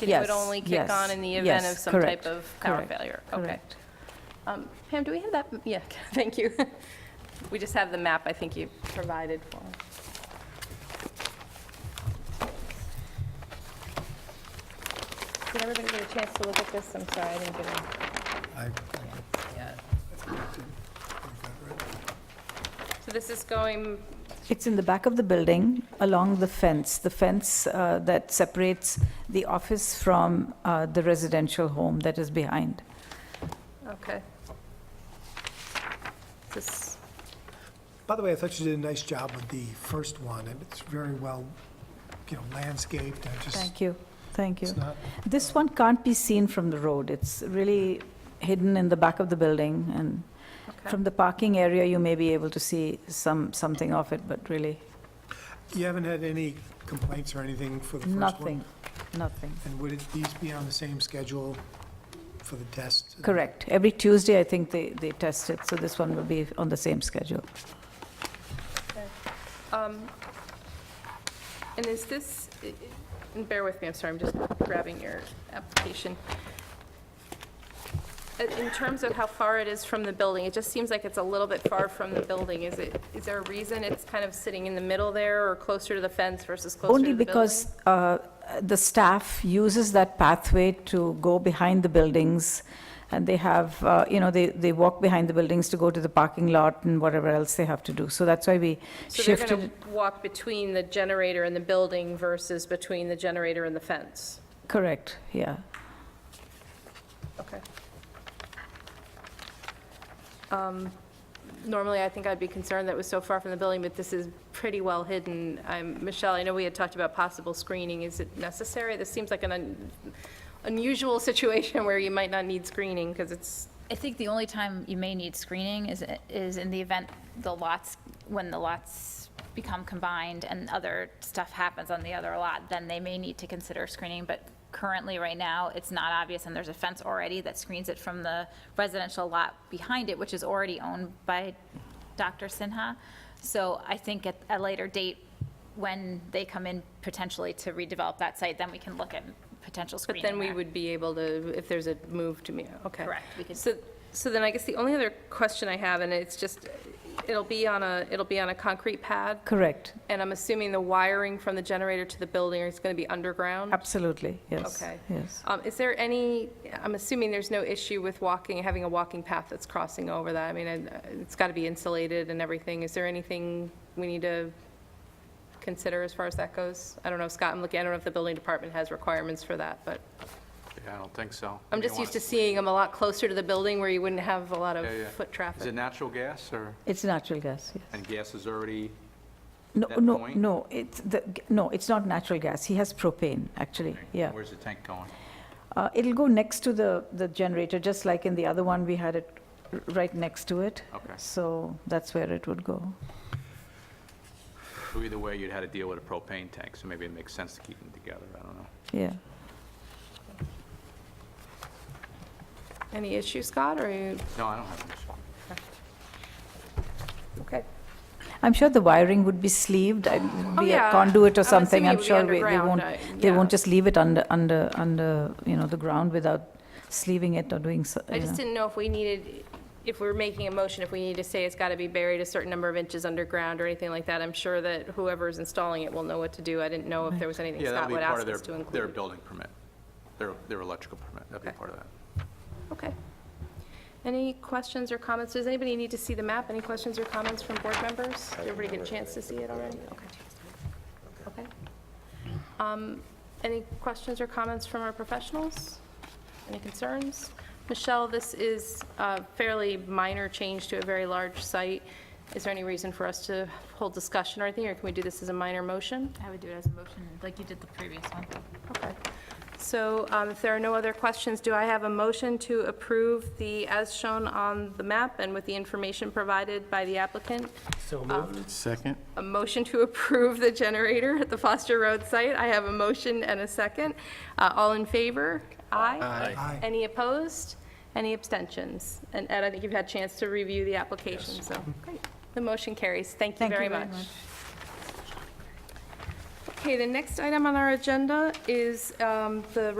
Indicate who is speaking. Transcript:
Speaker 1: Then it would
Speaker 2: Yes,
Speaker 1: only kick
Speaker 2: yes,
Speaker 1: on in the event
Speaker 2: yes,
Speaker 1: of some type
Speaker 2: correct,
Speaker 1: of power
Speaker 2: correct,
Speaker 1: failure? Okay.
Speaker 2: correct.
Speaker 1: Um, Pam, do we have that? Yeah, thank you. We just have the map, I think you provided for us. Did everybody get a chance to look at this? I'm sorry, I didn't get it.
Speaker 3: I-
Speaker 1: So this is going,
Speaker 2: It's in the back of the building, along the fence, the fence uh, that separates the office from uh, the residential home that is behind.
Speaker 1: okay. This,
Speaker 3: By the way, I thought you did a nice job with the first one, and it's very well, you know, landscaped, and just,
Speaker 2: Thank you, thank you.
Speaker 3: it's not,
Speaker 2: This one can't be seen from the road. It's really hidden in the back of the building, and
Speaker 1: okay.
Speaker 2: from the parking area, you may be able to see some, something of it, but really,
Speaker 3: you haven't had any complaints or anything for the first one?
Speaker 2: nothing, nothing.
Speaker 3: And would it- these be on the same schedule for the test?
Speaker 2: Correct. Every Tuesday, I think they, they test it, so this one will be on the same schedule.
Speaker 1: Um, And is this, i- i- and bear with me, I'm sorry, I'm just grabbing your application. Uh, In terms of how far it is from the building, it just seems like it's a little bit far from the building. Is it, is there a reason it's kind of sitting in the middle there or closer to the fence versus closer to the
Speaker 2: Only
Speaker 1: building?
Speaker 2: because uh, the staff uses that pathway to go behind the buildings, and they have, uh, you know, they, they walk behind the buildings to go to the parking lot and whatever else they have to do. So that's why we
Speaker 1: So they're
Speaker 2: shifted.
Speaker 1: going
Speaker 2: it.
Speaker 1: to walk between the generator and the building versus between the generator and the fence?
Speaker 2: Correct, yeah.
Speaker 1: Okay. Um, Normally, I think I'd be concerned that it was so far from the building, but this is pretty well hidden. I'm- Michelle, I know we had talked about possible screening. Is it necessary? This seems like an un- unusual situation where you might not need screening because it's,
Speaker 4: I think the only time you may need screening is, is in the event the lots, when the lots become combined and other stuff happens on the other lot, then they may need to consider screening, but currently, right now, it's not obvious, and there's a fence already that screens it from the residential lot behind it, which is already owned by Dr. Sinha. So I think at a later date, when they come in potentially to redevelop that site, then we can look at potential
Speaker 1: but
Speaker 4: screening
Speaker 1: then we
Speaker 4: there.
Speaker 1: would be able to, if there's a move to me, okay.
Speaker 4: Correct, we could-
Speaker 1: So, so then I guess the only other question I have, and it's just, it'll be on a, it'll be on a concrete pad?
Speaker 2: Correct,
Speaker 1: And I'm assuming the wiring from the generator to the building is going to be underground?
Speaker 2: absolutely, yes.
Speaker 1: Okay.
Speaker 2: Yes.
Speaker 1: Um, Is there any, I'm assuming there's no issue with walking, having a walking path that's crossing over that? I mean, I- it's got to be insulated and everything. Is there anything we need to consider as far as that goes? I don't know, Scott, I'm looking, I don't know if the building department has requirements for that, but
Speaker 5: Yeah, I don't think so.
Speaker 1: I'm
Speaker 5: You
Speaker 1: just
Speaker 5: wanna-
Speaker 1: used to seeing them a lot closer to the building where you wouldn't have a lot of
Speaker 5: Yeah, yeah.
Speaker 1: foot
Speaker 5: Is it
Speaker 1: traffic.
Speaker 5: natural gas or,
Speaker 2: It's natural gas, yes.
Speaker 5: and gas is already,
Speaker 2: No,
Speaker 5: that
Speaker 2: no,
Speaker 5: point?
Speaker 2: no, it's, the no, it's not natural gas. He has propane, actually, yeah.
Speaker 5: where's the tank going?
Speaker 2: Uh, It'll go next to the, the generator, just like in the other one, we had it r- right next to it.
Speaker 5: Okay.
Speaker 2: So that's where it would go.
Speaker 5: So Either way, you'd had to deal with a propane tank, so maybe it makes sense to keep them together, I don't know.
Speaker 2: Yeah.
Speaker 1: Any issue, Scott, or are you,
Speaker 5: No, I don't have an issue.
Speaker 1: okay?
Speaker 2: I'm sure the wiring would be sleeved. I- it'd
Speaker 1: Oh,
Speaker 2: Be
Speaker 1: yeah.
Speaker 2: a conduit
Speaker 1: I'm
Speaker 2: or
Speaker 1: assuming
Speaker 2: something.
Speaker 1: it
Speaker 2: I'm
Speaker 1: would be
Speaker 2: sure we- they
Speaker 1: underground,
Speaker 2: won't,
Speaker 1: I-
Speaker 2: they won't
Speaker 1: yeah.
Speaker 2: just leave it under, under, under, you know, the ground without sleeving it or doing, so-
Speaker 1: I
Speaker 2: you
Speaker 1: just
Speaker 2: know.
Speaker 1: didn't know if we needed, if we were making a motion, if we need to say it's got to be buried a certain number of inches underground or anything like that. I'm sure that whoever's installing it will know what to do. I didn't know if there was anything
Speaker 5: Yeah, that'll
Speaker 1: Scott
Speaker 5: be
Speaker 1: would
Speaker 5: part of
Speaker 1: ask
Speaker 5: their,
Speaker 1: us to include.
Speaker 5: their building permit, their, their electrical permit, that'd be
Speaker 1: Okay.
Speaker 5: part of that.
Speaker 1: Okay. Any questions or comments? Does anybody need to see the map? Any questions or comments from board members? Did everybody get a chance to see it already? Okay. Okay. Um, Any questions or comments from our professionals? Any concerns? Michelle, this is a fairly minor change to a very large site. Is there any reason for us to hold discussion or anything, or can we do this as a minor motion?
Speaker 4: I would do it as a motion, like you did the previous one.
Speaker 1: Okay. So um, if there are no other questions, do I have a motion to approve the, as shown on the map and with the information provided by the applicant? Um,
Speaker 6: So moved. Second.
Speaker 1: A motion to approve the generator at the Foster Road site. I have a motion and a second. Uh, All in favor? Aye.
Speaker 3: Aye.
Speaker 1: Any opposed? Any abstentions? And Ed, I think you've had a chance to review the application, so, great. The motion carries. Thank you
Speaker 2: Thank you
Speaker 1: very
Speaker 2: very
Speaker 1: much.
Speaker 2: much.
Speaker 1: Okay, the next item on our agenda is um, the